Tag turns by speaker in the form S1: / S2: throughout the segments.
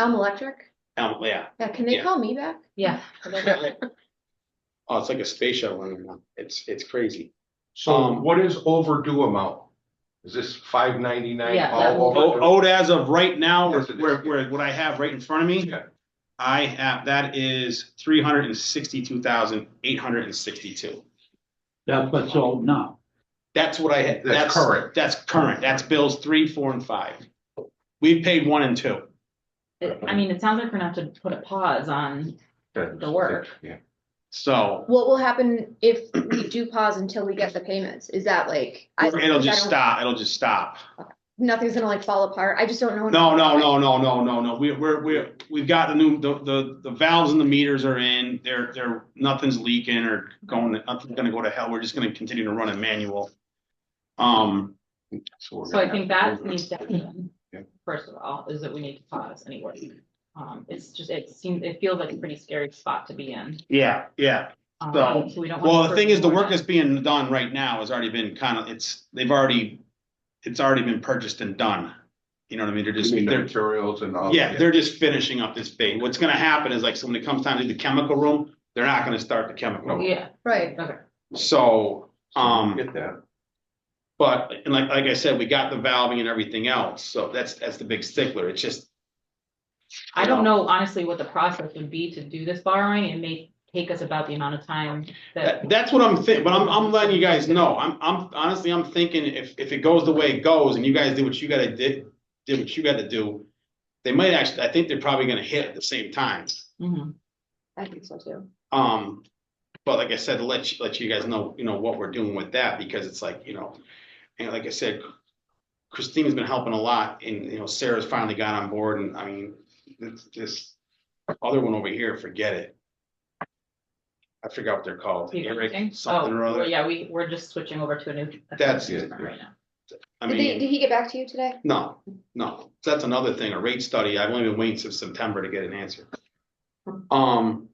S1: Elm Electric?
S2: Um, yeah,
S1: Yeah, can they
S2: Yeah.
S1: call me back?
S3: Yeah.
S2: oh, it's like a space shuttle in there. It's, it's crazy.
S4: So
S2: Um,
S4: what is overdue amount? Is this five ninety-nine
S3: Yeah, that
S4: all
S2: O-
S4: overdue?
S2: Owed Oh, as of right now,
S4: Oh, Yes, it is.
S2: where, where, what I have right in front of me,
S4: Yeah.
S2: I have, that is three hundred and sixty-two thousand, eight hundred and sixty-two.
S5: That's what's old now.
S2: That's what I had, that's,
S4: That's current.
S2: that's current. That's bills three, four, and five. We paid one and two.
S3: It- I mean, it sounds like we're gonna have to put a pause on,
S4: That-
S3: The work.
S4: Yeah.
S2: So
S1: What will happen if we do pause until we get the payments? Is that like? I-
S2: it'll just
S1: I don't-
S2: stop, it'll just stop.
S1: Nothing's gonna like fall apart. I just don't know.
S2: No, no, no, no, no, no, no. We, we're, we're, we've got the new, the, the, the valves and the meters are in. They're, they're, nothing's leaking or going, nothing's gonna go to hell. We're just gonna continue to run it manual. Um,
S4: we're
S3: so I
S4: gonna
S3: think
S4: have
S3: that
S4: to-
S3: needs to happen.
S4: Yeah.
S3: First of all, is that we need to pause anyway. Um, it's just, it seems, it feels like a pretty scary spot to be in.
S2: yeah, yeah.
S3: Um,
S2: So,
S3: so we don't wanna
S2: Well, the thing is, the
S3: further
S2: work that's being done right now has already been kind of, it's, they've already, it's already been purchased and done. You know what I mean? They're
S4: You
S2: just,
S4: mean the
S2: they're,
S4: materials and all?
S2: yeah, they're just finishing up this thing. What's gonna happen is like, so when it comes time to do the chemical room, they're not gonna start the chemical. room.
S3: Yeah,
S1: Right.
S3: okay.
S2: So, um.
S4: Get that.
S2: But, and like, like I said, we got the valving and everything else, so that's, that's the big stickler, it's just.
S3: I don't know honestly what the process would be to do this borrowing. It may take us about the amount of time that.
S2: That, that's what I'm thinking, but I'm, I'm letting you guys know, I'm, I'm, honestly, I'm thinking if, if it goes the way it goes and you guys do what you gotta did, did what you gotta do. They might actually, I think they're probably gonna hit at the same time,
S3: Mhm.
S1: I think so too.
S2: um. But like I said, to let, you- let you guys know, you know, what we're doing with that, because it's like, you know, and like I said. Christina's been helping a lot and, you know, Sarah's finally got on board and I mean, it's this other one over here, forget it. I forgot what they're called,
S3: You got
S2: Eric,
S3: anything?
S2: something or
S3: Oh, well,
S2: other.
S3: Yeah, we, we're just switching over to a new.
S2: That's-
S3: different Right now.
S2: I
S1: Did they,
S2: mean,
S1: did he get back to you today?
S2: no, no, So that's another thing, a rate study. I've only been waiting since September to get an answer. Um.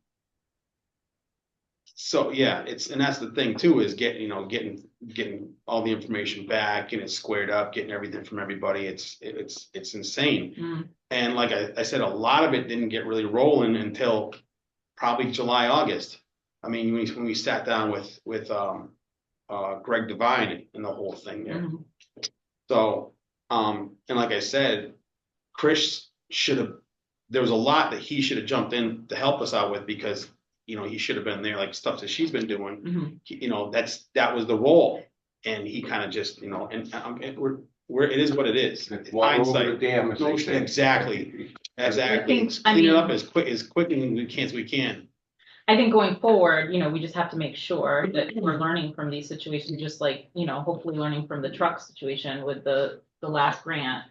S2: So, yeah, it's, and that's the thing too, is getting, you know, getting, getting all the information back, getting it squared up, getting everything from everybody. It's, it's, it's insane.
S3: Mm,
S2: And like I, I said, a lot of it didn't get really rolling until probably July, August. I mean, when we, when we sat down with, with, um, uh, Greg Devine and the whole thing there.
S3: mhm.
S2: So, um, and like I said, Chris should have, there was a lot that he should have jumped in to help us out with because, you know, he should have been there, like stuff that she's been doing.
S3: Mhm.
S2: He- You know, that's, that was the role. And he kind of just, you know, and, um, it, we're, we're, it is what it is. It's
S4: Walk over the
S2: Hindsight,
S4: dam, as
S2: No,
S4: they say.
S2: exactly. exactly.
S3: Things- I
S2: Clean it
S3: mean-
S2: up as quick, as quickly as we can, as we can.
S3: I think going forward, you know, we just have to make sure that we're learning from these situations, just like, you know, hopefully learning from the truck situation with the, the last grant.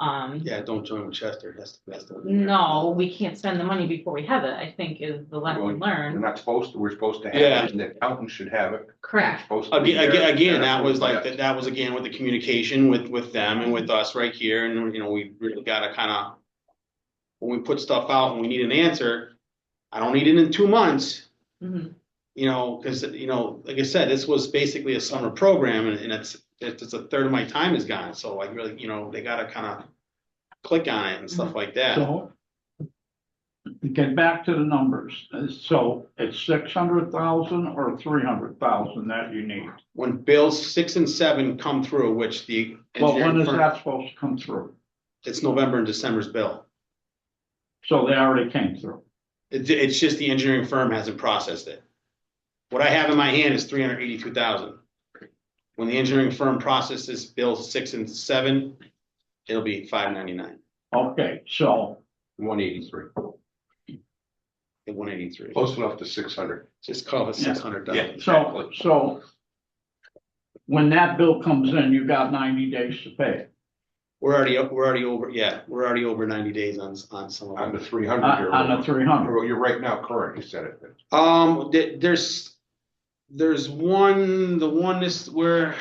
S3: Um,
S2: Yeah, don't join with Chester. That's, that's the.
S3: no, we can't spend the money before we have it, I think is the
S4: Well,
S3: lesson
S4: We're
S3: learned.
S4: not supposed to, we're supposed to have
S2: Yeah.
S4: it, and the accountant should have it. It's
S3: Correct.
S4: supposed to be
S2: Again,
S4: there.
S2: again, again, that was
S4: Yeah.
S2: like, that, that was again with the communication with, with them and with us right here, and, you know, we really gotta kinda. When we put stuff out and we need an answer, I don't need it in two months,
S3: Mhm.
S2: you know, cause, you know, like I said, this was basically a summer program, and, and it's, it's, it's a third of my time is gone, so I really, you know, they gotta kinda. Click on it and stuff like that,
S5: Mm-hmm. So get back to the numbers. Uh, So it's six hundred thousand or three hundred thousand that you need.
S2: when bills six and seven come through, which the.
S5: But when
S2: engineering
S5: is
S2: firm-
S5: that supposed to come through?
S2: It's November and December's bill.
S5: So they already came through.
S2: It, it's just the engineering firm hasn't processed it. What I have in my hand is three hundred eighty-two thousand. When the engineering firm processes bills six and seven, it'll be five ninety-nine
S5: Okay, so
S4: One eighty-three,
S2: and one eighty-three.
S4: close enough to six hundred.
S2: Oh, Just call it
S5: Yeah.
S2: six hundred
S4: Yeah.
S2: dollars.
S5: so so when that bill comes in, you got ninety days to pay it
S2: We're already, o- we're already over, yeah, we're already over ninety days on, on some of
S4: On the
S2: them.
S4: three
S5: on
S4: hundred.
S5: Uh, on the three hundred.
S4: You're right now current, you said it.
S2: Um, th- there's, there's one, the one is where,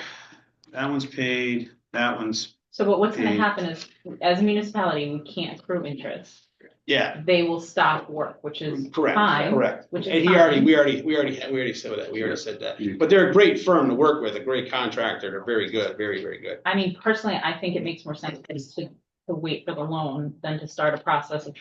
S2: that one's paid, that one's,
S3: So but what's gonna
S2: Mm.
S3: happen is, as a municipality, we can't accrue interest.
S2: yeah,
S3: They will stop work, which is
S2: correct,
S3: fine,
S2: correct.
S3: which is
S2: And he already,
S3: fine.
S2: we already, we already, we already said that, we already said that.
S4: You-
S2: But they're a great firm to work with, a great contractor, they're very good, very, very good.
S3: I mean, personally, I think it makes more sense to, to wait for the loan than to start a process of